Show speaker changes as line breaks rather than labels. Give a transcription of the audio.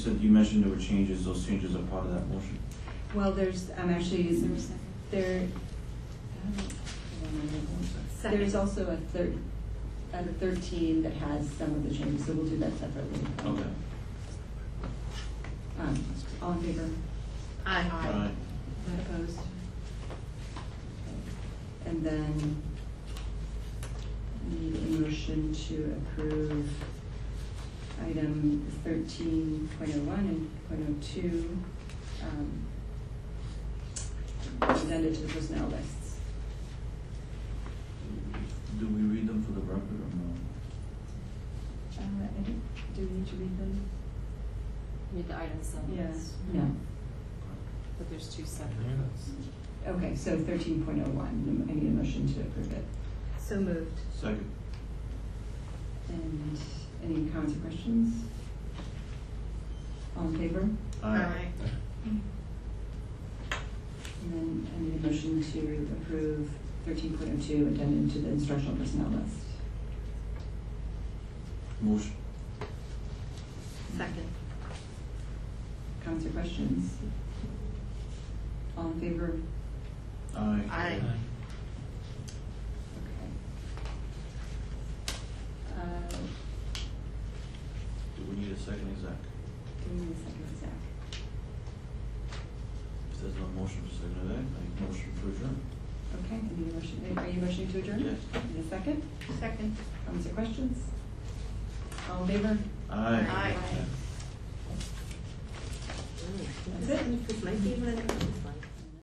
So you mentioned there were changes, those changes are part of that motion.
Well, there's, I'm actually,
Is there a second?
there, um, there's also a third, a thirteen that has some of the changes, so we'll do that separately.
Okay.
Um, All in favor?
Aye.
Alright.
Not opposed?
And then we need a motion to approve item thirteen point oh one and point oh two, um, presented to the personnel lists.
Do we read them for the record or
Uh, I think, do we need to read them?
Read the items
Yes.
themselves.
No.
But there's two separate
Yeah.
votes.
Okay, so thirteen point oh one, I need a motion to approve it.
So moved.
no? Second.
And any comments or questions? All in favor? And then I need a motion to approve thirteen point oh two addendum to the instructional personnel list.
Motion.
Second.
Comments or questions? All in favor?
Aye.
Aye.
Okay. Uh,
Do we need a second exec?
give me a second, Zach.
If there's no motion for second exec, I motion for adjourn.
Okay, I need a motion, are you motioning to adjourn?
Yes.
Need a second?
Second.
Comments or questions? All in favor?
Aye.
Aye. That's it. This might be one of the-